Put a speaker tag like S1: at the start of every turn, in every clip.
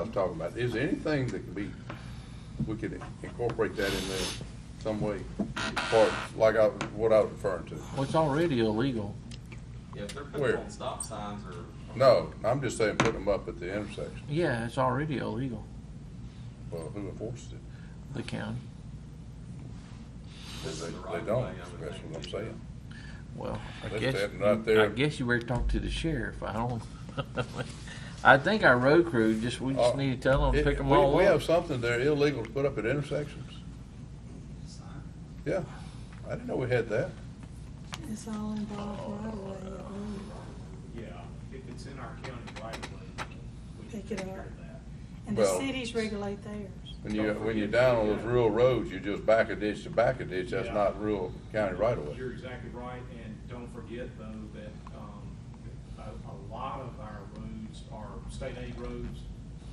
S1: I'm talking about. Is there anything that can be, we could incorporate that in there some way? Or like I, what I was referring to?
S2: Well, it's already illegal.
S3: Yeah, if they're putting
S1: Where?
S3: on stop signs or.
S1: No, I'm just saying put them up at the intersection.
S2: Yeah, it's already illegal,
S1: Well, who enforces it?
S2: the county.
S1: They,
S3: This is the
S1: they
S3: right
S1: don't.
S3: way, I would
S1: That's
S3: think.
S1: what I'm saying.
S2: Well, I
S1: That's
S2: guess,
S1: happening right there.
S2: I guess you better talk to the sheriff. I don't, I think our road crew, just, we just
S1: Uh,
S2: need to tell them, to
S1: It-
S2: pick them
S1: we-
S2: all
S1: We have
S2: up.
S1: something there illegal to put up at intersections. Yeah, I didn't know we had that.
S4: It's all involved right away, I believe.
S5: Yeah, if it's in our county right away, we can
S4: Pick it
S5: take care
S4: up.
S5: of that.
S4: And the
S1: Well-
S4: cities regulate theirs.
S1: When you, when you're down on those rural roads, you just back a ditch to back a ditch, that's
S5: Yeah.
S1: not rural county right of way.
S5: You're exactly right, and don't forget though that, um, a, a lot of our roads are state aid roads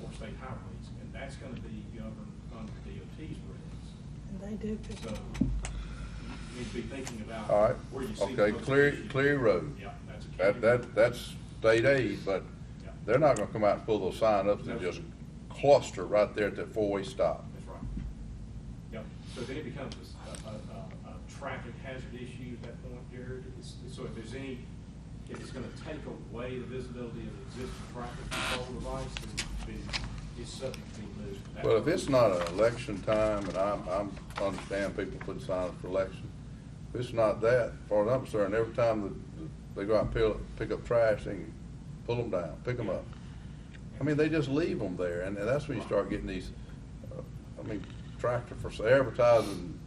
S5: or state highways, and that's gonna be governed under DOT's rules.
S4: And they do pick
S5: So
S4: it up.
S5: you need to be thinking about
S1: All right,
S5: where you see. the
S1: okay,
S5: most
S1: Cleary,
S5: issues.
S1: Cleary Road.
S5: Yeah, that's a county.
S1: That, that, that's state aid, but
S5: Yeah,
S1: they're not gonna come out and pull those sign ups and
S5: No.
S1: just cluster right there at that four-way stop.
S5: That's right. Yep, so then it becomes a, a, a, a traffic hazard issue at that point, Jared. It's- So if there's any, if it's gonna take away the visibility of the existing traffic control device, then it's, it's subject to be moved.
S1: Well, if it's not an election time, and I'm, I'm, understand people put signs for election, if it's not that, far as I'm concerned, every time that they go out and pick, pick up trash, they can pull them down, pick them up. I mean, they just leave them there, and, and that's when you start getting these, uh, I mean, tractor for sale, advertising,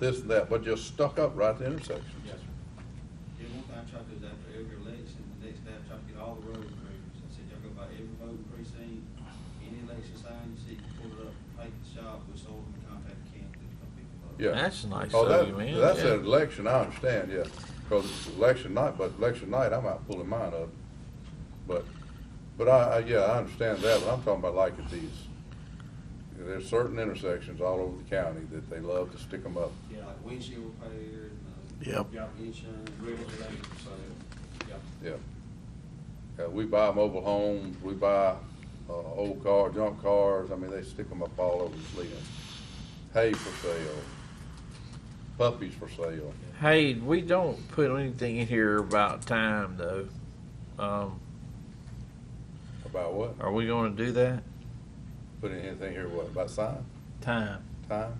S1: this and that, but just stuck up right at the intersection.
S5: Yes, sir.
S6: They want our truckers after every election, the next day I'm trying to get all the road crews. I said, y'all go by every voting precinct, any election sign you see, pull it up, take the shop, we sold them, and contact the candidate, come pick them up.
S1: Yeah.
S2: That's nice
S1: Oh,
S2: of
S1: that-
S2: you, man.
S1: That's
S2: Yeah.
S1: an election, I understand, yeah, because election night, but election night, I'm out pulling mine up. But, but I, I, yeah, I understand that, but I'm talking about like at these, there's certain intersections all over the county that they love to stick them up.
S5: Yeah,
S6: Like windshield repair, and, uh,
S2: Yep.
S5: yeah,
S6: insurance, real estate for sale.
S5: yeah.
S1: Yeah. Yeah, we buy mobile homes, we buy, uh, old car, junk cars, I mean, they stick them up all over the city. Hay for sale, puppies for sale.
S2: Hey, we don't put anything in here about time though. Um,
S1: About what?
S2: are we gonna do that?
S1: Putting anything here, what, about sign,
S2: Time,
S1: time?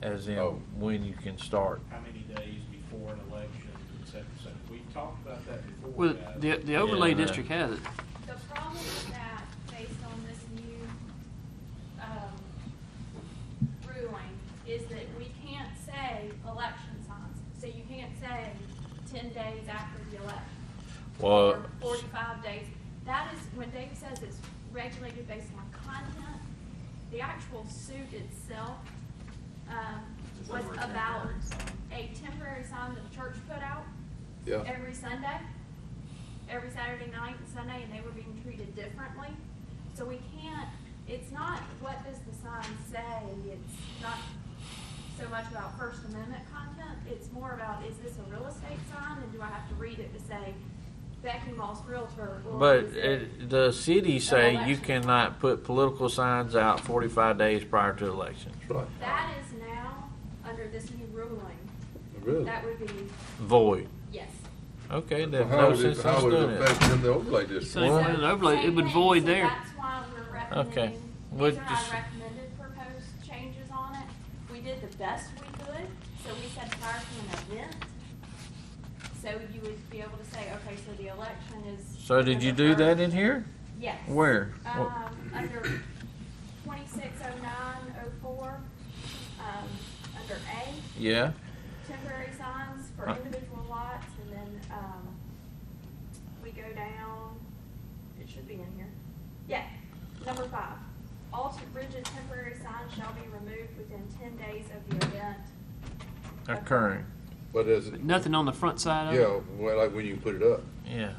S2: as in
S1: Oh.
S2: when you can start.
S5: How many days before an election, et cetera, et cetera. We talked about that before.
S7: Well,
S5: guys.
S7: the, the overlay
S2: Yeah.
S7: district has it.
S8: The problem with that, based on this new, um, ruling, is that we can't say election signs. So you can't say ten days after the election.
S2: Well-
S8: Or forty-five days. That is, when Dave says it's regulated based on content, the actual suit itself, um,
S3: It's
S8: was
S3: over a
S8: about
S3: temporary sign.
S8: a temporary sign that the church put out
S1: Yeah.
S8: every Sunday, every Saturday night and Sunday, and they were being treated differently. So we can't, it's not what does the sign say, it's not so much about First Amendment content, it's more about, is this a real estate sign, and do I have to read it to say Becky Moss Realtor? or
S2: But
S8: is
S2: it, the city say you cannot put political signs out forty-five days prior to election.
S1: That's right.
S8: That is now, under this new ruling,
S1: Really?
S8: that would be,
S2: Void.
S8: yes.
S2: Okay,
S1: Well,
S2: there's
S1: How
S2: no
S1: would it,
S2: sense
S1: how
S2: in
S1: would it
S2: doing it.
S1: affect in the overlay district?
S7: Same
S2: Well-
S7: thing, overlay, it
S8: Same
S7: would
S8: thing,
S7: void
S8: so
S7: there.
S8: That's why we're
S2: Okay.
S8: recommending,
S2: We'll
S8: these are
S2: just-
S8: our recommended proposed changes on it. We did the best we could, so we said prior to an event. So you would be able to say, okay, so the election is.
S2: So did you do
S8: November
S2: that in
S8: first.
S2: here?
S8: Yes.
S2: Where? What-
S8: Um, under twenty-six oh nine oh four, um, under A,
S2: Yeah.
S8: temporary signs for
S7: Uh.
S2: Huh.
S8: individual lots, and then, um, we go down, it should be in here. Yeah, number five, all t- rigid temporary signs shall be removed within ten days of the event.
S2: Occurring.
S1: But as,
S7: But Nothing on the front side of it.
S1: yeah, well, like when you put it up.
S2: Yeah.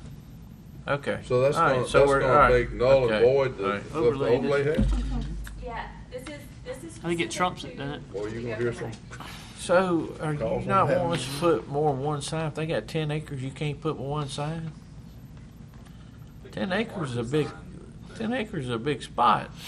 S2: Okay.
S1: So that's
S2: All right,
S1: gonna, that's
S2: so we're- all
S1: gonna
S2: right,
S1: make null and
S2: okay,
S1: void
S2: all
S1: the,
S2: right.
S1: the overlay
S7: Overlay
S1: here?
S8: Yeah, this is, this is.
S7: I think it
S8: specific
S7: trumps it,
S8: to
S7: doesn't it?
S1: Well, you
S8: the
S1: gonna hear some,
S8: overlay.
S2: So are you
S1: Calls
S2: not
S1: on that.
S2: wanting us to put more than one sign? If they got ten acres, you can't put one sign? Ten acres is a big, ten acres is a big spot.